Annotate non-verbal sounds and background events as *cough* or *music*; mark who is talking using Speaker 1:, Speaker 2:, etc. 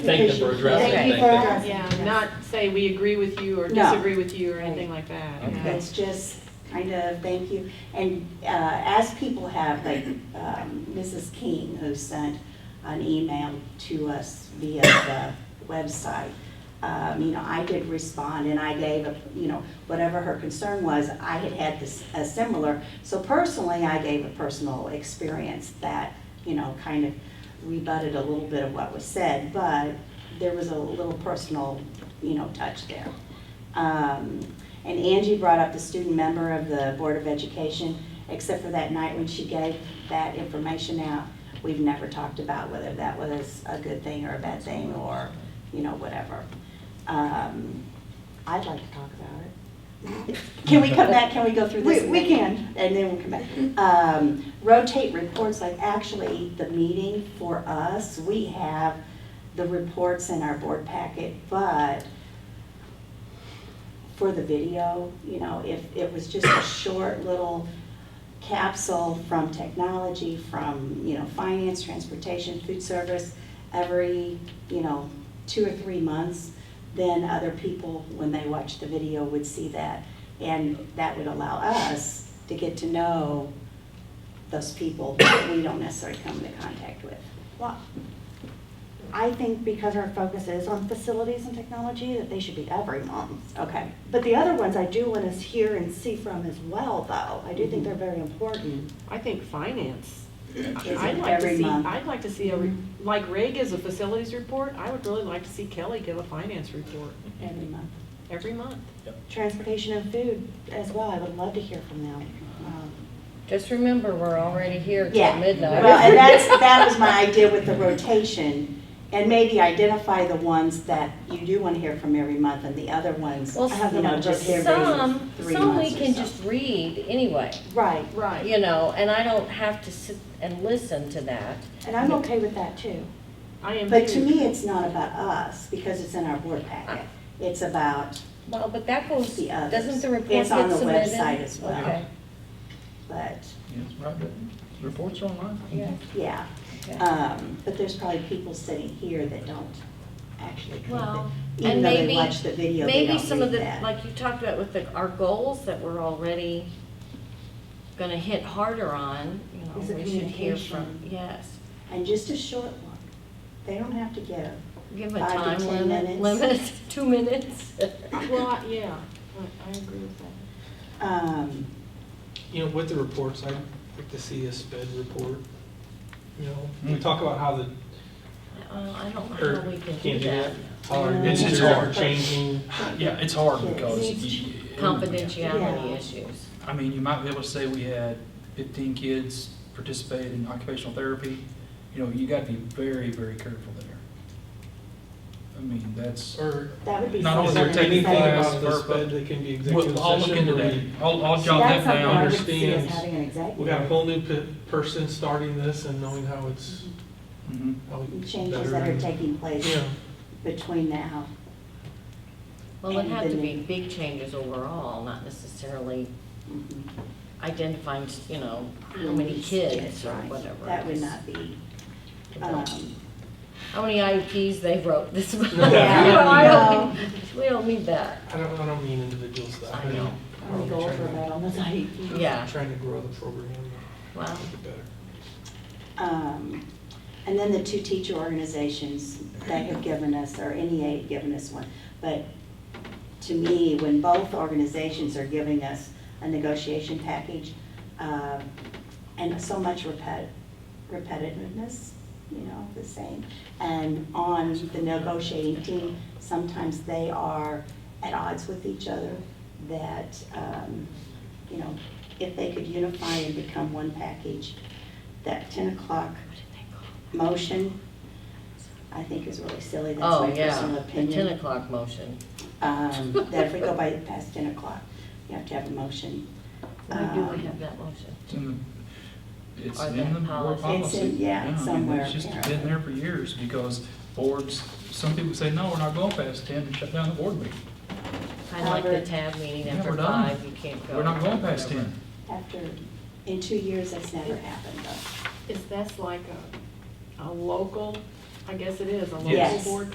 Speaker 1: Thank them for addressing.
Speaker 2: Thank
Speaker 1: it.
Speaker 2: you for
Speaker 1: Thank them.
Speaker 2: addressing.
Speaker 3: Yeah,
Speaker 2: this.
Speaker 3: not say we agree with you or
Speaker 2: No.
Speaker 3: disagree with you or anything like that.
Speaker 1: Okay.
Speaker 3: yeah.
Speaker 2: It's just kind of, thank you. And uh, as people have, like um, Mrs. King, who sent an email to us via the website, um, you know, I did respond and I gave, a you know, whatever her concern was, I had had this, a similar. So personally, I gave a personal experience that, you know, kind of rebutted a little bit of what was said, but there was a little personal, you know, touch there. Um, And Angie brought up the student member of the Board of Education, except for that night when she gave that information out, we've never talked about whether that was a good thing or a bad thing, or, you know, whatever. Um, I'd like to talk about
Speaker 4: *laughs*
Speaker 2: it. Can we come back, can we go through this?
Speaker 4: We- we
Speaker 2: can. And then we'll come back. Um, Rotate reports, like actually, the meeting for us, we have the reports in our board packet, but for the video, you know, if it was just a short little capsule from technology, from, you know, finance, transportation, food service, every, you know, two or three months, then other people, when they watch the video, would see that. And that would allow us to get to know those people that we don't necessarily come into contact with.
Speaker 4: Well, I think because our focus is on facilities and technology, that they should be every month.
Speaker 2: Okay,
Speaker 4: But the other ones I do want us hear and see from as well, though. I do think they're very important.
Speaker 3: I think finance.
Speaker 2: it
Speaker 3: I'd like to
Speaker 2: every
Speaker 3: see,
Speaker 2: month?
Speaker 3: I'd like to see a, re-
Speaker 2: Mm-hmm.
Speaker 3: like Ray gives a facilities report, I would really like to see Kelly give a finance report
Speaker 2: every month.
Speaker 3: every month.
Speaker 4: Transportation and food as well, I would love to hear from them. Um,
Speaker 5: Just remember, we're already here
Speaker 2: Yeah.
Speaker 5: till midnight.
Speaker 2: Well, and
Speaker 5: *laughs*
Speaker 2: that's, that was my idea with the rotation, and maybe identify the ones that you do want to hear from every month, and the other ones, you
Speaker 5: Well,
Speaker 2: know, just every three months
Speaker 5: Some, some we
Speaker 2: or
Speaker 5: can
Speaker 2: so.
Speaker 5: just read anyway,
Speaker 4: Right,
Speaker 3: Right.
Speaker 5: you know, and I don't have to sit and listen to that.
Speaker 4: and I'm okay with that too.
Speaker 3: I am
Speaker 2: But to
Speaker 3: too.
Speaker 2: me, it's not about us, because it's in our board packet. It's about
Speaker 5: Well, but that goes,
Speaker 2: the others.
Speaker 5: doesn't the report get
Speaker 2: It's on
Speaker 5: submitted?
Speaker 2: the website as well,
Speaker 5: Okay,
Speaker 2: but,
Speaker 1: Yes, right, but reports are online.
Speaker 5: yeah,
Speaker 2: yeah.
Speaker 5: okay.
Speaker 2: Um, But there's probably people sitting here that don't actually come,
Speaker 5: Well,
Speaker 2: in. even
Speaker 5: and
Speaker 2: though they
Speaker 5: maybe-
Speaker 2: watch the video, they
Speaker 5: Maybe
Speaker 2: don't
Speaker 5: some of
Speaker 2: read
Speaker 5: the,
Speaker 2: that.
Speaker 5: like you talked about with the, our goals that we're already gonna hit harder on, you
Speaker 2: Is the
Speaker 5: know, we should hear from,
Speaker 2: communication.
Speaker 5: yes.
Speaker 2: And just a short one. They don't have to give.
Speaker 5: Give a
Speaker 2: Five to
Speaker 5: time
Speaker 2: 10
Speaker 5: limit,
Speaker 2: minutes.
Speaker 5: limit, *laughs* two minutes.
Speaker 3: Well, I- yeah, I I agree with that.
Speaker 2: Um,
Speaker 6: You know, with the reports, I'd like to see a sped report. You know, we talk about how the,
Speaker 5: Uh, I don't know
Speaker 6: or
Speaker 5: how we can
Speaker 6: can't
Speaker 5: do that.
Speaker 6: How our
Speaker 2: It's-
Speaker 1: it's
Speaker 6: needs are
Speaker 1: hard.
Speaker 6: changing.
Speaker 7: Yeah, it's hard
Speaker 2: Yes.
Speaker 7: because, you-
Speaker 5: Confidentiality
Speaker 4: Yeah.
Speaker 5: issues.
Speaker 7: I mean, you might be able to say we had fifteen kids participate in occupational therapy. You know, you gotta be very, very careful there. I mean, that's,
Speaker 6: Or
Speaker 2: That would be
Speaker 7: Not
Speaker 2: something.
Speaker 6: is there
Speaker 2: that
Speaker 6: anything
Speaker 2: they-
Speaker 6: about the sped that can be executive
Speaker 7: Well, I'll look
Speaker 6: session
Speaker 7: into
Speaker 6: where
Speaker 7: that.
Speaker 6: we,
Speaker 7: I'll, I'll
Speaker 2: See,
Speaker 7: jot
Speaker 2: that's
Speaker 7: that
Speaker 2: something I
Speaker 7: down.
Speaker 2: would see as
Speaker 6: understands.
Speaker 2: having an
Speaker 6: we got a
Speaker 2: executive.
Speaker 6: whole new pe- person starting this and knowing how it's,
Speaker 7: Mhm.
Speaker 6: how we.
Speaker 2: Changes that
Speaker 6: better-
Speaker 2: are taking place
Speaker 6: Yeah,
Speaker 2: between now.
Speaker 5: Well, it'd have to be
Speaker 2: And
Speaker 5: big changes overall, not necessarily
Speaker 2: Mhm.
Speaker 5: identifying, you know, how many kids or
Speaker 2: Right.
Speaker 5: whatever.
Speaker 2: That would
Speaker 5: It's-
Speaker 2: not be,
Speaker 5: it's
Speaker 2: um,
Speaker 5: like How many IEPs they wrote
Speaker 7: *laughs*
Speaker 5: this month. *laughs*
Speaker 6: Yeah.
Speaker 5: You know, I
Speaker 2: Yeah.
Speaker 5: don't need- *laughs* We don't need that,
Speaker 6: I don't, I don't mean individuals that.
Speaker 5: I know.
Speaker 6: mean,
Speaker 4: I'm gonna go
Speaker 6: trying
Speaker 4: over
Speaker 6: to-
Speaker 4: that on the site.
Speaker 2: um,
Speaker 3: Mm-hmm.
Speaker 5: yeah,
Speaker 6: Trying to grow the program,
Speaker 5: well,
Speaker 6: make it better.
Speaker 2: um, and then the two teacher organizations that have given us, or NEA had given us one. But to me, when both organizations are giving us a negotiation package, um, and so much repet- repetitiveness, you know, the same. And on the negotiating team, sometimes they are at odds with each other, that, um, you know, if they could unify and become one package, that 10 o'clock motion, I think is really silly. That's
Speaker 5: oh,
Speaker 2: my
Speaker 5: yeah,
Speaker 2: personal
Speaker 5: the ten
Speaker 2: opinion.
Speaker 5: o'clock motion.
Speaker 2: Um, That if we go by past 10 o'clock, you have to have a motion.
Speaker 5: Why do
Speaker 2: Um,
Speaker 5: we have that motion?
Speaker 7: It's in the- It's
Speaker 5: Or
Speaker 7: in
Speaker 5: the
Speaker 7: the board
Speaker 5: policy.
Speaker 2: It's
Speaker 7: policy.
Speaker 2: in- yeah,
Speaker 7: I mean,
Speaker 2: somewhere,
Speaker 7: It's just
Speaker 2: apparently.
Speaker 7: been there for years because boards, some people say, no, we're not going past ten and shut down the board meeting.
Speaker 5: Kind of like the
Speaker 2: Albert.
Speaker 5: tab meeting
Speaker 7: Yeah,
Speaker 5: after
Speaker 7: we're done.
Speaker 5: five, you can't go.
Speaker 7: We're not going past
Speaker 5: whatever.
Speaker 7: ten.
Speaker 2: After, in two years, that's never happened though.
Speaker 3: Is that's like a, a local, I guess it is, a local
Speaker 2: Yes.
Speaker 3: board